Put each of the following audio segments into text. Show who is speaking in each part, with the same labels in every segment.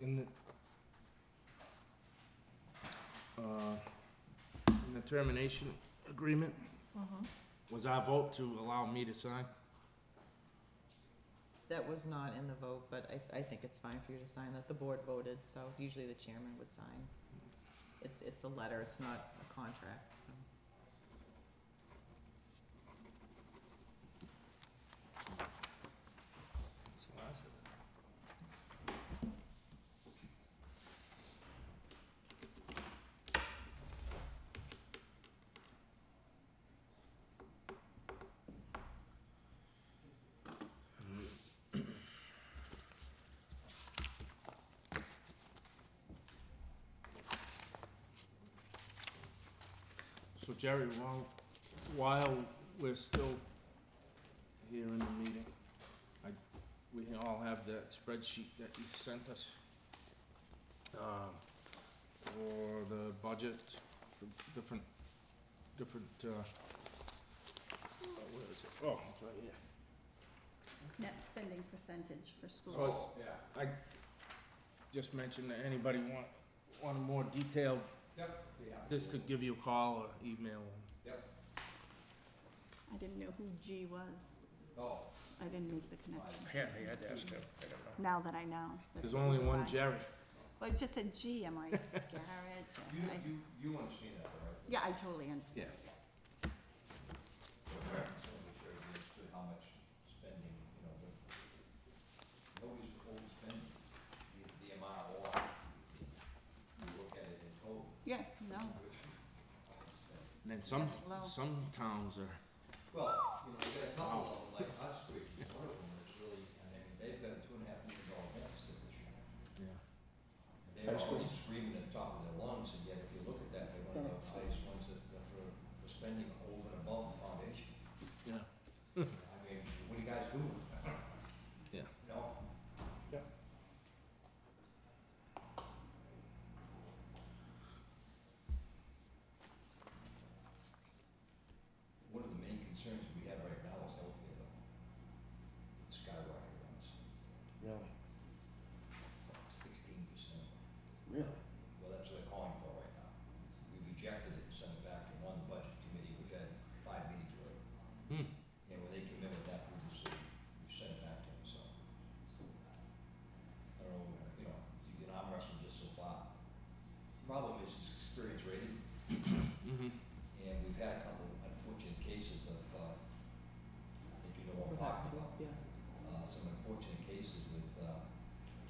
Speaker 1: in the, uh, in the termination agreement, was our vote to allow me to sign?
Speaker 2: That was not in the vote, but I, I think it's fine for you to sign that. The board voted, so usually the chairman would sign. It's, it's a letter, it's not a contract, so.
Speaker 1: It's the last of it. So Jerry, while, while we're still here in the meeting, we all have that spreadsheet that you sent us um, for the budget for different, different, uh, oh, where is it? Oh, it's right here.
Speaker 3: Net spending percentage for schools.
Speaker 1: So it's- I just mentioned that anybody want, want a more detailed,
Speaker 4: Yep.
Speaker 1: this could give you a call or email.
Speaker 3: I didn't know who G was.
Speaker 4: Oh,
Speaker 3: I didn't make the connection.
Speaker 5: Apparently, I had to ask him, I don't know.
Speaker 3: Now that I know. that
Speaker 1: There's
Speaker 3: who
Speaker 1: only
Speaker 3: you
Speaker 1: one
Speaker 3: are.
Speaker 1: Jerry.
Speaker 3: Well, it just said G, I'm like, Garrett.
Speaker 4: you,
Speaker 3: I-
Speaker 4: you, you understand that, though, right?
Speaker 3: Yeah, I totally understand.
Speaker 4: Just wanna make sure everybody understood how much spending, you know, what- nobody's overspending the, the amount of water. You look at it in total.
Speaker 3: Yeah, no,
Speaker 1: And then some,
Speaker 3: That's low.
Speaker 1: some towns are,
Speaker 4: Well, you know, we got a couple of them, like Hot Springs, one of them is really, I mean, they've got a two and a half million dollar deficit this year. And They're already screaming at the top of their lungs, and yet if you look at that, they're one of the highest ones that, that for, for spending over and above the foundation.
Speaker 1: yeah,
Speaker 4: I mean, what are you guys doing?
Speaker 1: yeah.
Speaker 4: You know? One of the main concerns we have right now is healthcare, though. It's skyrocketed on us,
Speaker 1: Really?
Speaker 4: sixteen percent.
Speaker 1: Really?
Speaker 4: Well, that's what they're calling for right now. We've rejected it, and sent it back to one budget committee, we've had five meetings already.
Speaker 1: Hmm.
Speaker 4: And when they came in with that, we just, we sent it back to them, so. I don't know, you know, you can arm wrestle just so far. Problem is, it's experience rated,
Speaker 1: Mm-hmm.
Speaker 4: and we've had a couple unfortunate cases of, uh, I think you know what I'm talking about. Uh, some unfortunate cases with, uh,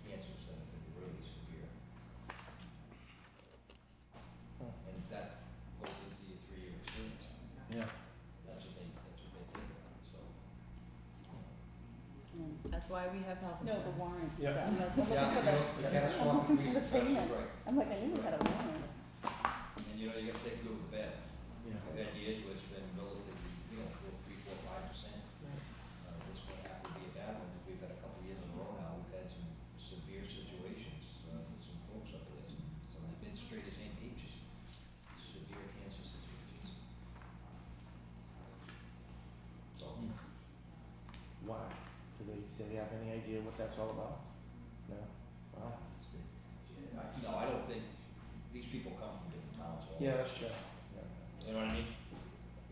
Speaker 4: cancers that have been really severe. And that goes into your three-year experience.
Speaker 1: Yeah.
Speaker 4: That's what they, that's what they think about, so.
Speaker 2: That's why we have health
Speaker 3: no,
Speaker 2: insurance.
Speaker 3: the warrant.
Speaker 1: Yeah.
Speaker 3: I'm like, I'm looking for
Speaker 4: Yeah, you know,
Speaker 3: the-
Speaker 4: for catastrophic reasons,
Speaker 3: the
Speaker 4: absolutely
Speaker 3: payment.
Speaker 4: right.
Speaker 3: I'm like, I knew we had a warrant.
Speaker 4: And you know, you gotta take good with the bad.
Speaker 1: Yeah.
Speaker 4: I've had years where it's been relatively, you know, four, three, four, five percent. Uh, this one happened to be a bad one, because we've had a couple of years in a row now, we've had some severe situations, uh, with some folks up there, some, some administrators and teachers, severe cancer situations. So,
Speaker 1: Hmm.
Speaker 5: Why? Do they, do they have any idea what that's all about? No? Wow.
Speaker 4: it's good. Yeah, I, no, I don't think, these people come from different towns all
Speaker 5: Yeah,
Speaker 4: over.
Speaker 5: that's true. Yeah.
Speaker 4: You know what I mean?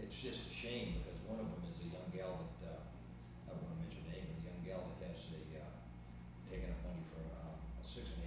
Speaker 4: It's just a shame because one of them is a young gal that, uh, I don't wanna mention her name, but a young gal that has a, uh, taken up money for, uh, a six and eight